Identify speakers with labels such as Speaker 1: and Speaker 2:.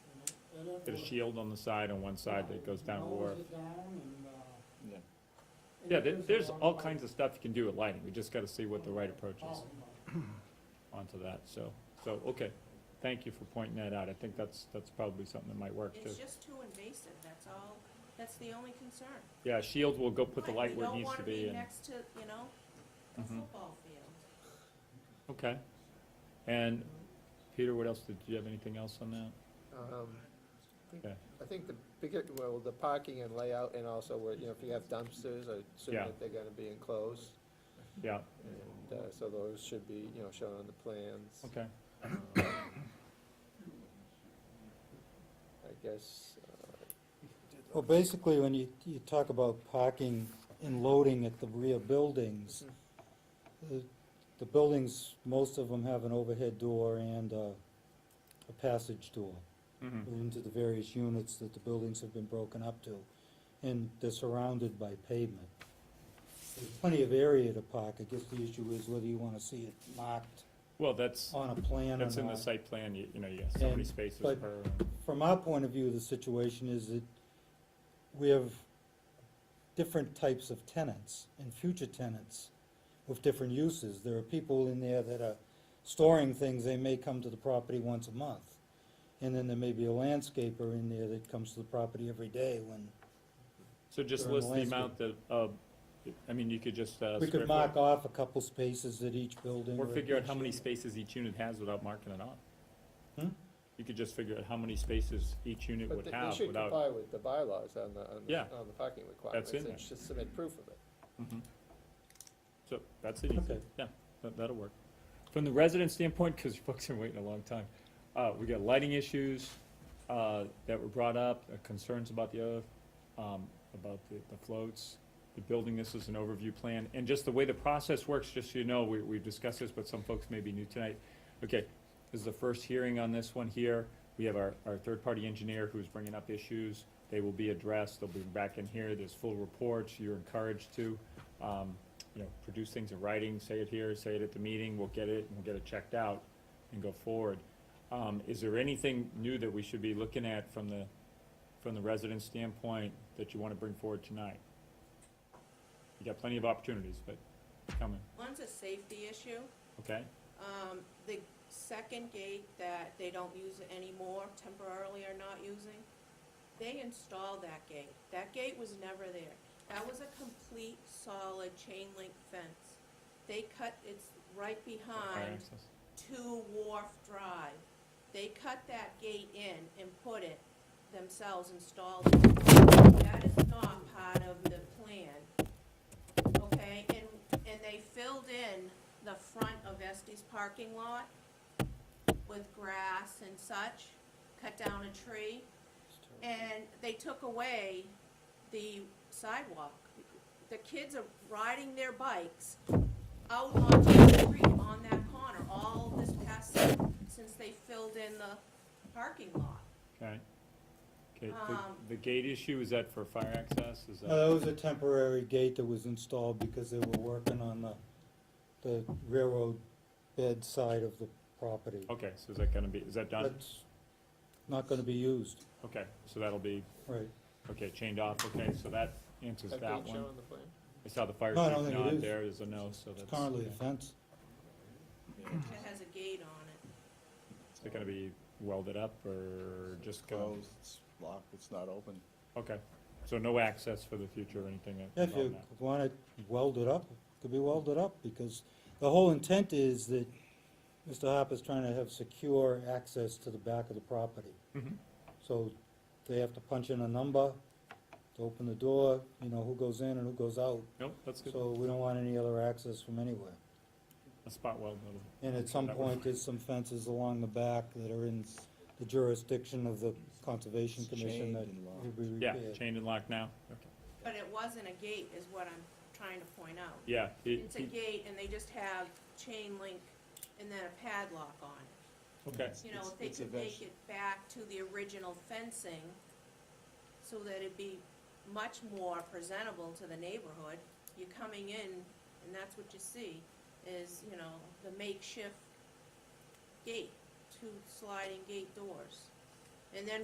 Speaker 1: Got a shield on the side on one side that goes down uh, the wharf.
Speaker 2: Yeah.
Speaker 1: Yeah, there, there's all kinds of stuff you can do with lighting, we just gotta see what the right approach is onto that, so, so, okay. Thank you for pointing that out, I think that's, that's probably something that might work too.
Speaker 3: It's just too invasive, that's all, that's the only concern.
Speaker 1: Yeah, shield will go put the
Speaker 3: Like,
Speaker 1: light where it needs to be
Speaker 3: We don't wanna be
Speaker 1: and,
Speaker 3: next to, you know, a
Speaker 1: Mhm.
Speaker 3: football field.
Speaker 1: okay. And, Peter, what else, did you have anything else on that?
Speaker 4: Um, I think-
Speaker 1: Okay.
Speaker 4: I think the bigger, well, the parking and layout and also where, you know, if you have dumpsters, I assume
Speaker 1: Yeah.
Speaker 4: that they're gonna be enclosed.
Speaker 1: Yeah,
Speaker 4: And, uh, so those should be, you know, shown on the plans.
Speaker 1: okay,
Speaker 4: I guess, uh,
Speaker 5: Well, basically, when you, you talk about parking and loading at the rear buildings,
Speaker 1: Mm-hmm.
Speaker 5: the, the buildings, most of them have an overhead door and a, a passage door
Speaker 1: mhm,
Speaker 5: into the various units that the buildings have been broken up to, and they're surrounded by pavement. There's Plenty of area to park, I guess the issue is whether you wanna see it marked
Speaker 1: well, that's,
Speaker 5: on a plan or not.
Speaker 1: that's in the site plan, you, you know, you got so many
Speaker 5: And-
Speaker 1: spaces per.
Speaker 5: but- from our point of view, the situation is that we have different types of tenants and future tenants with different uses. There are people in there that are storing things, they may come to the property once a month. And then there may be a landscaper in there that comes to the property every day when,
Speaker 1: So just
Speaker 5: During the
Speaker 1: list the amount that, uh, I mean, you could just, uh.
Speaker 5: we
Speaker 1: square
Speaker 5: could
Speaker 1: foot-
Speaker 5: mark off a couple spaces at each building.
Speaker 1: Or
Speaker 5: at
Speaker 1: figure out how
Speaker 5: each-
Speaker 1: many spaces each unit has without marking it on.
Speaker 5: Hmm?
Speaker 1: You could just figure out how many spaces each unit
Speaker 4: but
Speaker 1: would
Speaker 4: they- they
Speaker 1: have
Speaker 4: should
Speaker 1: without.
Speaker 4: comply with the bylaws on the, on
Speaker 1: Yeah.
Speaker 4: the, on the parking requirements.
Speaker 1: in
Speaker 4: and
Speaker 1: there.
Speaker 4: Just submit proof of it.
Speaker 1: Mhm. So, that's it, easy.
Speaker 5: Okay.
Speaker 1: yeah, that, that'll work. From the resident standpoint, because you folks have been waiting a long time, uh, we got lighting issues, uh, that were brought up, uh, concerns about the other, um, about the, the floats, the building, this is an overview plan, and just the way the process works, just so you know, we, we've discussed this, but some folks may be new tonight. Okay, this is the first hearing on this one here, we have our, our third-party engineer who's bringing up issues, they will be addressed, they'll be back in here, there's full reports, you're encouraged to, um, you know, produce things in writing, say it here, say it at the meeting, we'll get it, and we'll get it checked out and go forward. Um, is there anything new that we should be looking at from the, from the resident standpoint that you wanna bring forward tonight? You got plenty of opportunities, but it's coming,
Speaker 3: One's a safety issue,
Speaker 1: okay?
Speaker 3: um, the second gate that they don't use anymore, temporarily are not using, they installed that gate. That gate was never there. That was a complete solid chain link fence. They cut, it's right
Speaker 1: Fire
Speaker 3: behind
Speaker 1: access.
Speaker 3: to Wharf Drive. They cut that gate in and put it themselves, installed it. That is not part of the plan, okay? And, and they filled in the front of Estes parking lot with grass and such, cut down a tree, and they took away the sidewalk. The kids are riding their bikes out onto the street on that corner all this past, summer since they filled in the parking lot.
Speaker 1: Okay. Okay,
Speaker 3: Um,
Speaker 1: the, the gate issue, is that for fire access, is
Speaker 5: No, that
Speaker 1: that?
Speaker 5: Uh, was a temporary gate that was installed because they were working on the, the railroad bed side of the property.
Speaker 1: Okay, so is that gonna be, is that done?
Speaker 5: That's not gonna be used,
Speaker 1: Okay, so that'll be,
Speaker 5: right.
Speaker 1: okay, chained off, okay, so that answers
Speaker 4: Have they
Speaker 1: that one.
Speaker 4: shown the plan?
Speaker 1: I saw the fire
Speaker 5: No, I
Speaker 1: chief
Speaker 5: don't think it
Speaker 1: nod
Speaker 5: is.
Speaker 1: there, there's a no, so
Speaker 5: It's
Speaker 1: that's.
Speaker 5: currently a
Speaker 1: okay.
Speaker 5: fence.
Speaker 3: It has a gate on it.
Speaker 1: Is it gonna be welded up or just gonna,
Speaker 2: Closed, it's locked, it's not open.
Speaker 1: okay, so no access for the future or anything that-
Speaker 5: If
Speaker 1: on
Speaker 5: you
Speaker 1: that?
Speaker 5: want it welded up, it could be welded up, because the whole intent is that Mr. Harper's trying to have secure access to the back of the property.
Speaker 1: Mhm.
Speaker 5: So they have to punch in a number to open the door, you know, who goes in and who goes out.
Speaker 1: Nope, that's good,
Speaker 5: So we don't want any other access from anywhere.
Speaker 1: a spot weld, that'll-
Speaker 5: And at some
Speaker 1: That was-
Speaker 5: point, there's some fences along the back that are in the jurisdiction of the Conservation
Speaker 2: It's
Speaker 5: Commission
Speaker 2: chained
Speaker 5: that
Speaker 2: and locked.
Speaker 5: will be
Speaker 1: yeah,
Speaker 5: repaired.
Speaker 1: chained and locked now, okay,
Speaker 3: But it wasn't a gate is what I'm trying to point out.
Speaker 1: yeah. it-
Speaker 3: It's a
Speaker 1: it-
Speaker 3: gate and they just have chain link and then a padlock on it.
Speaker 1: Okay,
Speaker 3: You know,
Speaker 2: It's-
Speaker 3: if they
Speaker 2: it's a
Speaker 3: could
Speaker 2: veg-
Speaker 3: make it back to the original fencing so that it'd be much more presentable to the neighborhood, you're coming in and that's what you see is, you know, the makeshift gate, two sliding gate doors. And then